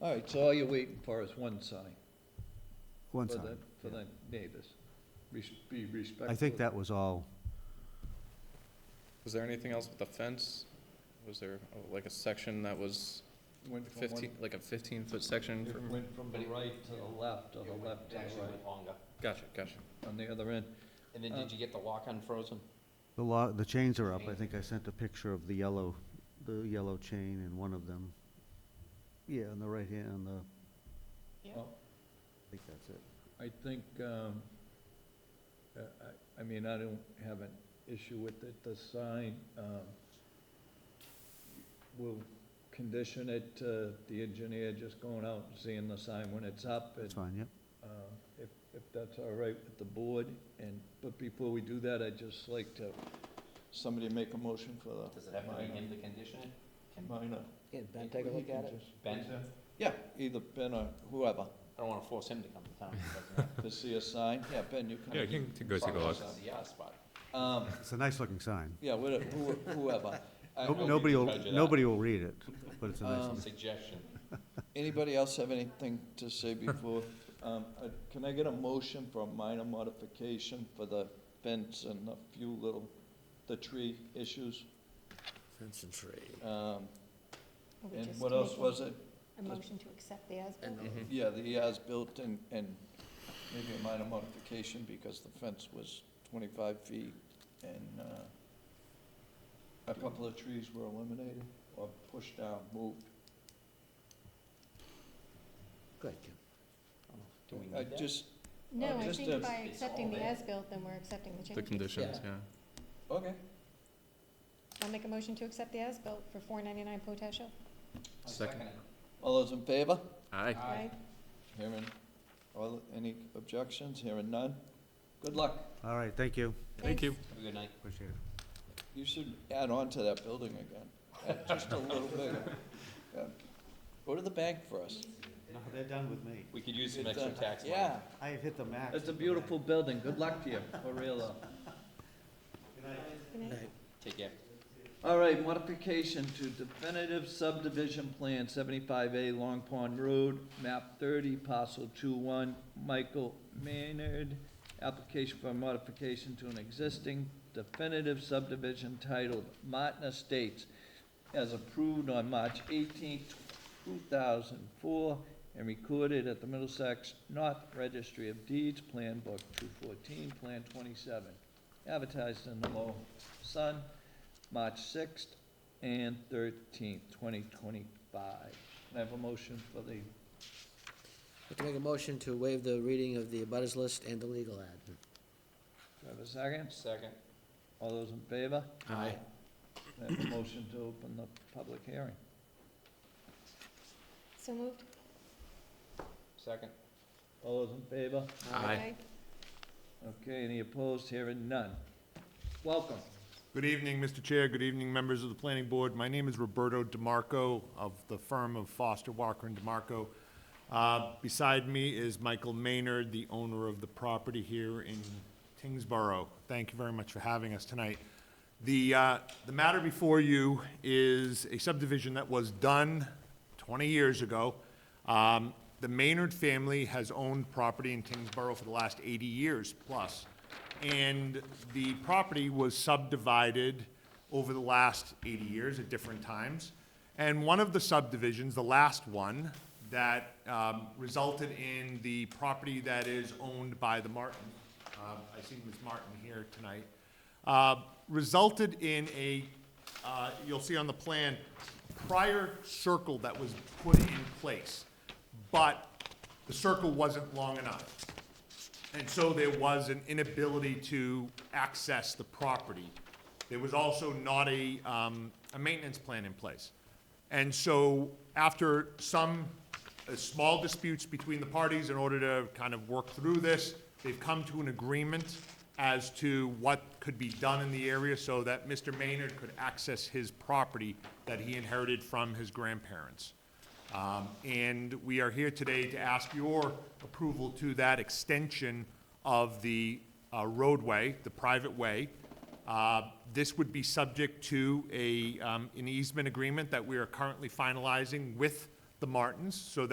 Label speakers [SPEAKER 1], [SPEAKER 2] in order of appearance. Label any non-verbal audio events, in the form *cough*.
[SPEAKER 1] All right, so all you're waiting for is one sign
[SPEAKER 2] One
[SPEAKER 1] for
[SPEAKER 2] sign.
[SPEAKER 1] the, for the neighbors. Res- Be respectful.
[SPEAKER 2] I think that was all.
[SPEAKER 3] Was there anything else with the fence? Was there oh, like a section that was
[SPEAKER 1] Went from one-
[SPEAKER 3] fifteen, like a fifteen-foot section
[SPEAKER 1] It
[SPEAKER 3] from?
[SPEAKER 1] went from the right to the left, or the left to the right,
[SPEAKER 4] longer.
[SPEAKER 3] Gotcha, gotcha.
[SPEAKER 1] on the other end.
[SPEAKER 4] And then did you get the lock unfrozen?
[SPEAKER 2] The law, the chains are up. I think I sent a picture of the yellow, the yellow chain in one of them. Yeah, on the right hand, on the, I
[SPEAKER 1] Well,
[SPEAKER 2] think that's it.
[SPEAKER 1] I think, um, uh, I, I mean, I don't have an issue with it, the sign, um, we'll condition it, to the engineer just going out and seeing the sign when it's up, and
[SPEAKER 2] That's fine, yep.
[SPEAKER 1] uh, if, if that's all right with the board, and, but before we do that, I'd just like to, somebody make a motion for the.
[SPEAKER 4] Does it have to be him to condition it? Can
[SPEAKER 1] Minor.
[SPEAKER 5] Can Ben take a look at it?
[SPEAKER 4] Ben,
[SPEAKER 1] Yeah, either Ben or whoever,
[SPEAKER 4] I don't wanna force him to come
[SPEAKER 1] *laughs*
[SPEAKER 4] to town.
[SPEAKER 1] to see a sign, yeah, Ben, you can.
[SPEAKER 6] Yeah, you can t- go take a look.
[SPEAKER 4] Yeah, spot.
[SPEAKER 1] Um,
[SPEAKER 2] It's a nice looking sign.
[SPEAKER 1] yeah, whate- who- whoever. I-
[SPEAKER 2] No-
[SPEAKER 4] I'll be
[SPEAKER 2] Nobody
[SPEAKER 4] the
[SPEAKER 2] will,
[SPEAKER 4] judge of that.
[SPEAKER 2] nobody will read it, but it's a nice,
[SPEAKER 1] Um,
[SPEAKER 4] Suggestion.
[SPEAKER 1] Anybody else have anything to say before? Um, uh, Can I get a motion for a minor modification for the fence and a few little, the tree issues?
[SPEAKER 7] Fence and tree.
[SPEAKER 1] Um,
[SPEAKER 5] Are we
[SPEAKER 1] And
[SPEAKER 5] just
[SPEAKER 1] what else
[SPEAKER 5] making
[SPEAKER 1] was it?
[SPEAKER 5] A motion to accept the as-built?
[SPEAKER 7] And
[SPEAKER 4] Mm-hmm.
[SPEAKER 7] the-
[SPEAKER 1] Yeah, the as-built and, and maybe a minor modification because the fence was twenty-five feet and, uh, a couple of trees were eliminated or pushed down, moved.
[SPEAKER 7] Go ahead, Kim.
[SPEAKER 4] Do we
[SPEAKER 1] I
[SPEAKER 4] need that?
[SPEAKER 1] Uh, just,
[SPEAKER 5] No, I
[SPEAKER 1] Just
[SPEAKER 5] think
[SPEAKER 1] a-
[SPEAKER 5] by
[SPEAKER 4] It's all
[SPEAKER 5] accepting the
[SPEAKER 4] there.
[SPEAKER 5] as-built, then we're accepting the
[SPEAKER 3] The
[SPEAKER 5] changes.
[SPEAKER 3] conditions, yeah.
[SPEAKER 1] okay.
[SPEAKER 5] I'll make a motion to accept the as-built for four ninety-nine Potash Hill.
[SPEAKER 4] I'll
[SPEAKER 3] Second.
[SPEAKER 4] it.
[SPEAKER 1] All those in favor?
[SPEAKER 6] Aye.
[SPEAKER 5] Aye.
[SPEAKER 1] Hearing, all, any objections? Hearing none? Good luck.
[SPEAKER 2] all right, thank you.
[SPEAKER 6] Thank you.
[SPEAKER 4] Have a good night.
[SPEAKER 2] Appreciate it.
[SPEAKER 1] You should add on to that building again, Add just a little
[SPEAKER 4] *laughs*
[SPEAKER 1] bigger. Yeah. Go to the bank first.
[SPEAKER 2] No, they're done with me.
[SPEAKER 4] We could use some extra tax money.
[SPEAKER 1] Yeah,
[SPEAKER 2] I have hit the max.
[SPEAKER 1] it's a beautiful building. Good luck to you, for real though.
[SPEAKER 5] Good night.
[SPEAKER 4] Take care.
[SPEAKER 1] All right, modification to definitive subdivision plan seventy-five A Long Pond Road, map thirty, parcel two-one, Michael Maynard. Application for modification to an existing definitive subdivision titled Martin Estates as approved on March eighteenth, two thousand four, and recorded at the Middlesex North Registry of Deeds, Plan Book two fourteen, Plan twenty-seven. Advertised in the Lowell Sun, March sixth and thirteenth, twenty twenty-five. Can I have a motion for the,
[SPEAKER 7] I'd like to make a motion to waive the reading of the abutters list and the legal ad.
[SPEAKER 1] do I have a second?
[SPEAKER 4] Second.
[SPEAKER 1] All those in favor?
[SPEAKER 7] Aye.
[SPEAKER 1] Can I have a motion to open the public hearing?
[SPEAKER 5] So moved?
[SPEAKER 4] Second.
[SPEAKER 1] All those in favor?
[SPEAKER 5] Aye.
[SPEAKER 1] Okay, any opposed? Hearing none. Welcome.
[SPEAKER 8] Good evening, Mr. Chair. Good evening, members of the planning board. My name is Roberto DiMarco of the firm of Foster Walker and DiMarco. Uh, Beside me is Michael Maynard, the owner of the property here in Tingsboro. Thank you very much for having us tonight. The, uh, the matter before you is a subdivision that was done 20 years ago. Um, The Maynard family has owned property in Tingsboro for the last 80 years plus. And the property was subdivided over the last 80 years at different times. And one of the subdivisions, the last one, that um, resulted in the property that is owned by the Martin, uh, I see Ms. Martin here tonight, uh, resulted in a, uh, you'll see on the plan, prior circle that was put in place. But the circle wasn't long enough. And so there was an inability to access the property. There was also not a, um, a maintenance plan in place. And so after some, uh, small disputes between the parties in order to kind of work through this, they've come to an agreement as to what could be done in the area so that Mr. Maynard could access his property that he inherited from his grandparents. Um, And we are here today to ask your approval to that extension of the uh, roadway, the private way. Uh, This would be subject to a, um, an easement agreement that we are currently finalizing with the Martins so that.